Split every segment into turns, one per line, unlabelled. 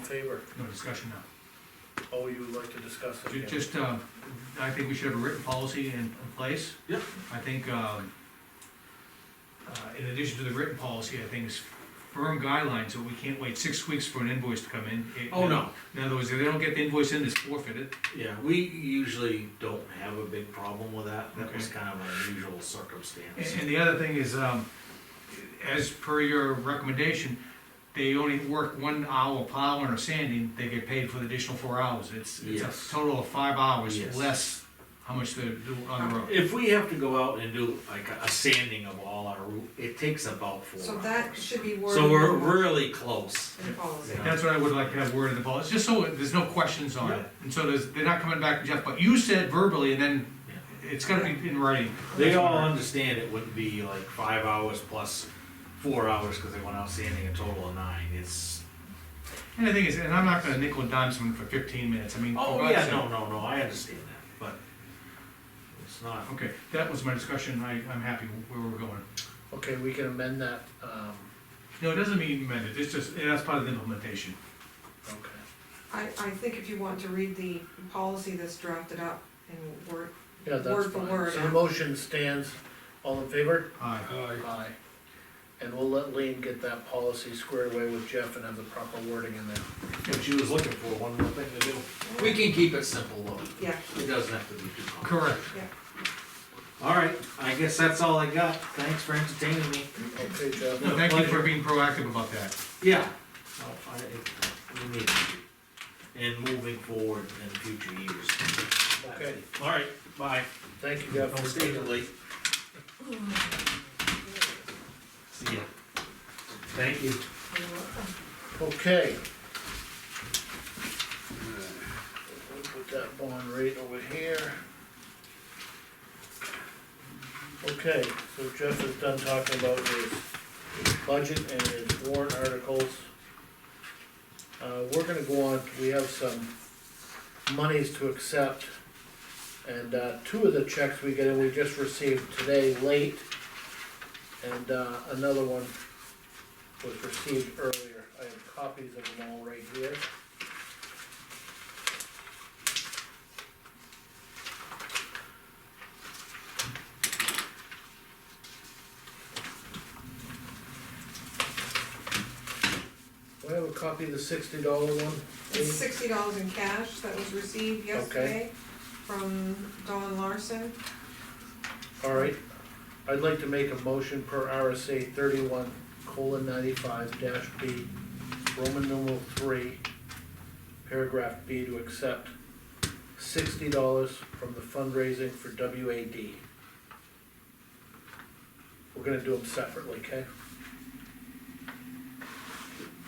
favor?
No discussion now.
Oh, you would like to discuss it
Ju-
again?
Just, uh, I think we should have a written policy in in place.
Yep.
I think, um, uh, in addition to the written policy, I think it's firm guidelines, so we can't wait six weeks for an invoice to come in. It-
Oh, no,
In other words, if they don't get the invoice in, it's forfeited.
yeah, we usually don't have a big problem with that, that was kind of an unusual
And,
circumstance.
and the other thing is, um, as per your recommendation, they only work one hour plowing or sanding, they get paid for the additional four hours. It's, it's
Yes.
a total of five hours
Yes.
less how much they do on the road.
If we have to go out and do like a sanding of all our roof, it takes about four hours.
So that should be worded.
So we're really close.
In the policy.
Yeah.
That's what I would like to have worded in the policy, just so there's no questions on it.
Yeah.
And so there's, they're not coming back to Jeff, but you said verbally and then it's gonna be in writing.
They all understand it wouldn't be like five hours plus four hours, cause they went out sanding a total of nine, it's.
And the thing is, and I'm not gonna nickel and dime someone for fifteen minutes, I mean. for
Oh,
God's
yeah,
sake.
no, no, no, I understand that, but it's not,
Okay, that was my discussion, I, I'm happy where we're going.
Okay, we can amend that, um,
No, it doesn't mean amended, it's just, that's part of the implementation.
okay.
I, I think if you want to read the policy that's drafted up and word,
Yeah, that's
Word for
fine.
word,
So the
yeah.
motion stands, all in favor?
Aye.
Aye. And we'll let Lean get that policy squared away with Jeff and have the proper wording in there.
if she was looking for one more thing to do. We can keep it simple though,
yeah,
it doesn't have to be too complex.
Correct.
Alright, I guess that's all I got, thanks for entertaining me.
Okay, Jeff?
No, Thank you for being proactive about that.
Yeah. Oh, I, it, we need to, and moving forward in future years.
Okay,
Alright, bye.
thank you, Jeff.
Don't stay too late. See ya. Thank you.
you're welcome.
Okay. We'll Put that bond rate over here. Okay, so Jeff is done talking about his budget and his warrant articles. Uh, we're gonna go on, we have some monies to accept. And, uh, two of the checks we get, in we just received today late. And, uh, another one was received earlier. I have copies of them all right here. Do I have a copy of the sixty dollar one?
It's sixty dollars in cash that was received yesterday from Don Larson.
Alright, I'd like to make a motion per RSA thirty-one colon ninety-five dash B, Roman numeral three, paragraph B to accept sixty dollars from the fundraising for WAD. We're gonna do them separately, okay?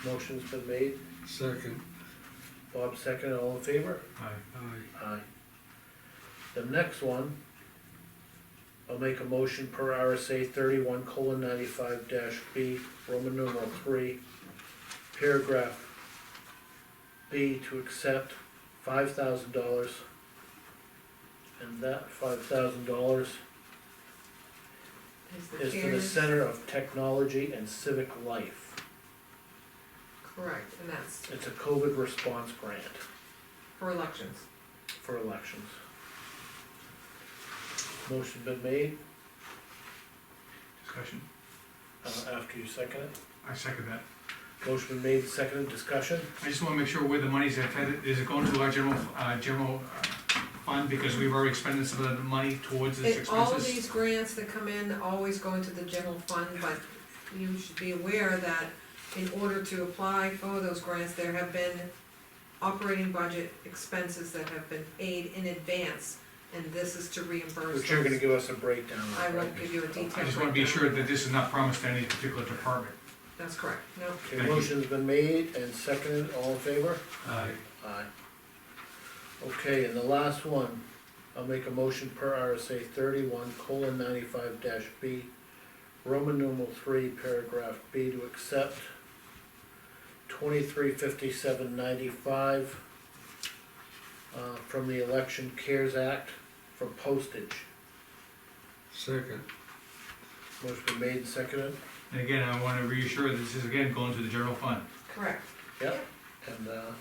Motion's been made,
Second,
Bob second, all in favor?
Aye.
aye.
Aye. The next one, I'll make a motion per RSA thirty-one colon ninety-five dash B, Roman numeral three, paragraph B to accept five thousand dollars. And that five thousand dollars
Is the
is to the
chairs-
Center of Technology and Civic Life.
Correct, and that's
It's a COVID response grant
for elections.
for elections. Motion been made,
Discussion,
uh, after you second it.
I second that.
Motion been made, seconded, discussion?
I just wanna make sure where the money's at, That- is it going to our general, uh, general uh, fund, because we've already expended some of the money towards these
It, all of
expenses?
these grants that come in always go into the general fund, but you should be aware that in order to apply for those grants, there have been operating budget expenses that have been paid in advance, and this is to reimburse
But you're gonna
those.
give us a breakdown. of
I
it,
won't
right?
give you a detailed.
I just wanna be
breakdown.
assured that this is not promised to any particular department.
That's correct, no,
Okay,
Thank you.
motion's been made and seconded, all in favor?
Aye.
Aye. Okay, and the last one, I'll make a motion per RSA thirty-one colon ninety-five dash B, Roman numeral three, paragraph B, to accept twenty-three fifty-seven ninety-five uh, from the Election Cares Act for postage.
Second,
Motion been made and seconded,
And again, I wanna reassure that this is again going to the general fund.
correct.
Yep. And, uh,